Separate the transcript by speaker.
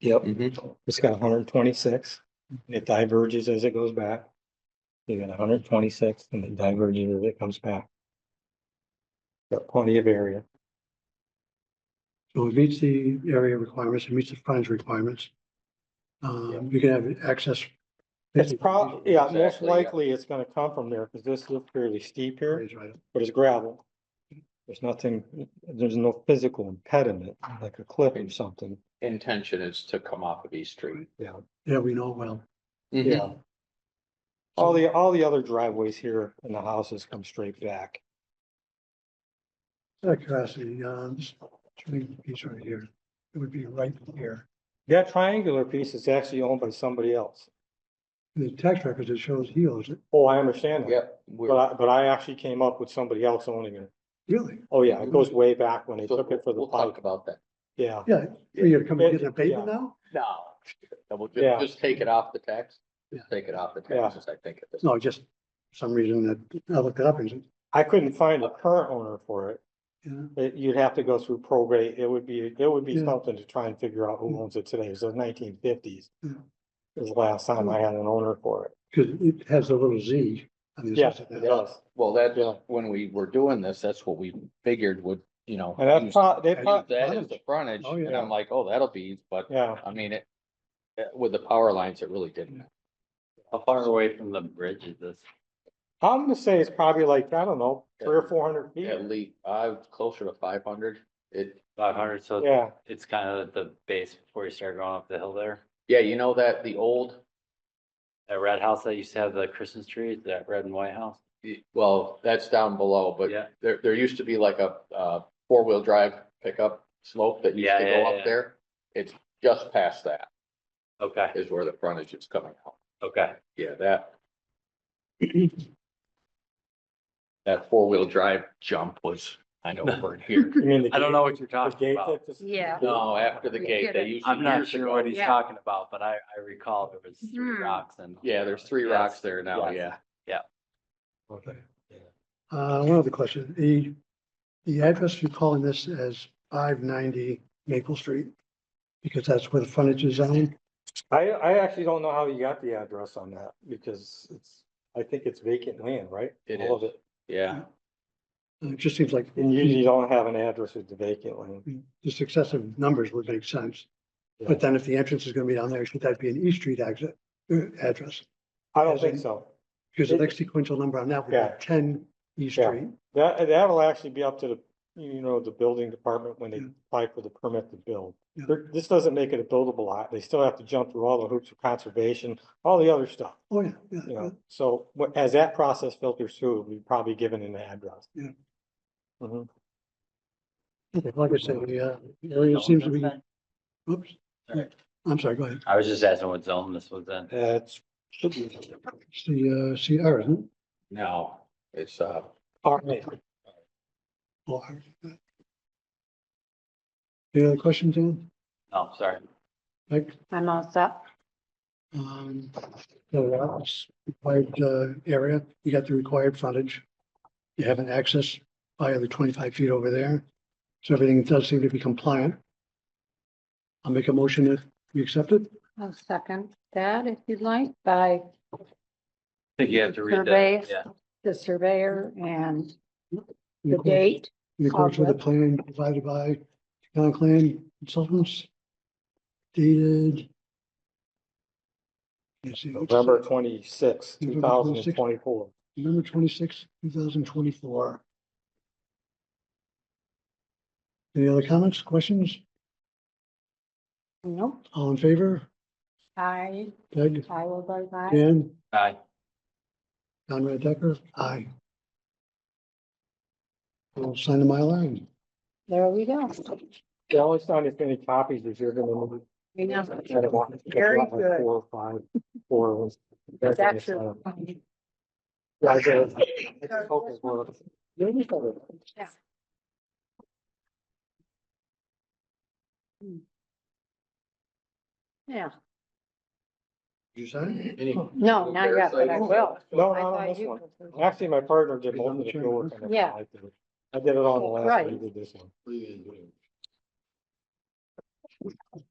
Speaker 1: Yep,
Speaker 2: Mhm.
Speaker 1: Mm-hmm. it's got hundred and twenty-six. It diverges as it goes back. You got hundred and twenty-six and it diverges as it comes back. Got plenty of area.
Speaker 3: So it meets the area requirements, it meets the frontage requirements. Um, you can have access.
Speaker 1: It's prob, yeah, most
Speaker 2: Exactly, yeah.
Speaker 1: likely it's gonna come from there because this is fairly steep here,
Speaker 3: Right, right.
Speaker 1: but it's gravel. There's nothing, there's no physical impediment, like a cliff or something.
Speaker 2: Intention is to come off of East Street.
Speaker 3: Yeah, we know well.
Speaker 2: Mm-hmm.
Speaker 1: Yeah. All the, all the other driveways here and the houses come straight back.
Speaker 3: Out of curiosity, uh, this turning piece right here, it would be right here.
Speaker 1: That triangular piece is actually owned by somebody else.
Speaker 3: In The tax records, it shows he owns it,
Speaker 1: Oh, I understand that.
Speaker 2: Yep. we're-
Speaker 1: But I, but I actually came up with somebody else owning it.
Speaker 3: really?
Speaker 1: Oh, yeah, it goes way back when they
Speaker 2: Mm-hmm. so
Speaker 1: took it for the
Speaker 2: We'll talk
Speaker 1: pike,
Speaker 2: about that.
Speaker 1: yeah.
Speaker 3: Yeah, are you coming to get an abatement now?
Speaker 2: No. And we'll
Speaker 1: Yeah.
Speaker 2: just, just take it off the tax.
Speaker 3: Yeah.
Speaker 2: Take it off the
Speaker 1: Yeah.
Speaker 2: taxes, I think. at this-
Speaker 3: No, just some reason that I looked it up and, said,
Speaker 1: I couldn't find a current owner for it.
Speaker 3: yeah,
Speaker 1: It, you'd have to go through probate. It would be, it would be
Speaker 3: Yeah.
Speaker 1: something to try and figure out
Speaker 2: Mm-hmm.
Speaker 1: who owns it today. It's the nineteen fifties.
Speaker 3: Yeah.
Speaker 1: Was the last time I had an owner for it.
Speaker 3: because it has a little Z on the.
Speaker 1: Yeah,
Speaker 3: assessment.
Speaker 1: it does.
Speaker 2: Well, that's
Speaker 1: Yeah.
Speaker 2: when we were doing this, that's what we figured would, you know.
Speaker 1: And that's
Speaker 2: use-
Speaker 1: prob, they
Speaker 3: I
Speaker 1: prob,
Speaker 2: use That is the frontage.
Speaker 3: Oh,
Speaker 2: And
Speaker 1: yeah.
Speaker 2: I'm like, oh, that'll be, but
Speaker 1: yeah,
Speaker 2: I mean, it, it- with the power lines, it really didn't.
Speaker 4: How far away from the bridge is this?
Speaker 1: I'm gonna say it's probably like, I don't know, three or four hundred
Speaker 2: At
Speaker 1: feet.
Speaker 2: least, I'm closer to five hundred. It,
Speaker 4: Five hundred, so it's-
Speaker 1: Yeah,
Speaker 4: it's kind of at the base before you start going up the hill there.
Speaker 2: yeah, you know that, the old,
Speaker 4: That red house that used to have the Christmas tree, that red and white house?
Speaker 2: well, that's down below, but
Speaker 4: Yeah,
Speaker 2: There, there used to be like a, uh, four-wheel drive pickup slope that used
Speaker 4: Yeah,
Speaker 2: to
Speaker 4: yeah,
Speaker 2: go
Speaker 4: yeah.
Speaker 2: up there. It's just past that
Speaker 4: okay,
Speaker 2: is where the frontage is coming out.
Speaker 4: okay.
Speaker 2: Yeah, that. That four-wheel drive jump was, I know, over here.
Speaker 1: you mean the.
Speaker 4: I don't know what you're
Speaker 1: gate- the
Speaker 4: talking
Speaker 1: gate that
Speaker 4: about.
Speaker 1: just-
Speaker 5: Yeah.
Speaker 2: No, after the gate, they used. to-
Speaker 4: I'm not
Speaker 2: years
Speaker 4: sure
Speaker 2: ago-
Speaker 4: what he's
Speaker 5: Yeah.
Speaker 4: talking about, but I, I recall there was three
Speaker 5: Hmm.
Speaker 4: rocks and.
Speaker 2: Yeah, there's three
Speaker 4: Yes.
Speaker 2: rocks there now,
Speaker 4: yes.
Speaker 2: yeah.
Speaker 3: Okay. Uh, one other question, the, the address you're calling this as five ninety Maple Street? Because that's where the frontage is on,
Speaker 1: I, I actually don't know how you got the address on that because it's, I think it's vacant land, right?
Speaker 2: It
Speaker 1: All of
Speaker 2: is. Yeah,
Speaker 3: Uh, it just seems like
Speaker 1: And you usually don't have an address with the vacant land.
Speaker 3: the successive numbers would make sense.
Speaker 1: Yeah.
Speaker 3: But then if the entrance is gonna be down there, should that be an East Street exit, uh, address?
Speaker 1: I don't
Speaker 3: As
Speaker 1: think
Speaker 3: in-
Speaker 1: so.
Speaker 3: Because the next sequential number on that would
Speaker 1: Yeah.
Speaker 3: be ten East
Speaker 1: Yeah.
Speaker 3: Street.
Speaker 1: That, that'll actually be up to the, you know, the building department when they
Speaker 3: Yeah.
Speaker 1: apply for the permit to build.
Speaker 3: Yeah.
Speaker 1: There- This doesn't make it a buildable lot. They still have to jump through all the hoops of conservation, all the other stuff,
Speaker 3: Oh, yeah, yeah,
Speaker 1: you
Speaker 3: yeah.
Speaker 1: know? So wha- as that process filters through, we have probably given an address.
Speaker 3: Yeah.
Speaker 1: Mhm.
Speaker 3: Like I said, the, uh, area seems to be, oops,
Speaker 4: Sorry.
Speaker 3: I'm sorry, go ahead.
Speaker 4: I was just asking what zone this was in.
Speaker 1: That's, should be,
Speaker 3: It's the, uh, CR, isn't it?
Speaker 2: no, it's, uh,
Speaker 1: all right.
Speaker 3: Well, I already got it. Any other questions, Dan?
Speaker 4: Oh, sorry.
Speaker 3: Mike?
Speaker 5: I'm all set.
Speaker 3: Um, the lots, required, uh, area, you got the required frontage. You have an access by the twenty-five feet over there. So everything does seem to be compliant. I'll make a motion if you accept it.
Speaker 5: I'll second that if you'd like by
Speaker 4: I think you have to read
Speaker 5: survey,
Speaker 4: that. Yeah,
Speaker 5: the surveyor and
Speaker 3: In
Speaker 5: the
Speaker 3: accordance-
Speaker 5: date.
Speaker 3: In accordance with the plan provided by Conclan Consultants dated. Let's see, what's-
Speaker 1: November twenty-sixth, two
Speaker 3: November
Speaker 1: thousand
Speaker 3: 26th.
Speaker 1: and twenty-four.
Speaker 3: November twenty-sixth, two thousand twenty-four. Any other comments, questions?
Speaker 5: Nope,
Speaker 3: All in favor?
Speaker 5: I,
Speaker 3: Peg,
Speaker 5: I will vote aye.
Speaker 3: Dan,
Speaker 4: Aye.
Speaker 3: Conrad Decker, aye. We'll sign the line.
Speaker 5: There we go.
Speaker 1: The only sign that's any copies is you're gonna need
Speaker 5: We know. Very good.
Speaker 1: Four, five, four.
Speaker 5: It's actually.
Speaker 1: uh,
Speaker 5: Yeah. Hmm. Yeah,
Speaker 3: You sign?
Speaker 2: any.
Speaker 5: no, not yet, but I will.
Speaker 1: No,
Speaker 5: I
Speaker 1: not Oh, on
Speaker 5: thought
Speaker 1: this
Speaker 5: you
Speaker 1: one.
Speaker 5: were first.
Speaker 1: Actually, my partner did most of the field work on this
Speaker 5: Yeah.
Speaker 1: one. I did- I did it all in the last, one.
Speaker 5: Right.
Speaker 1: he did this one.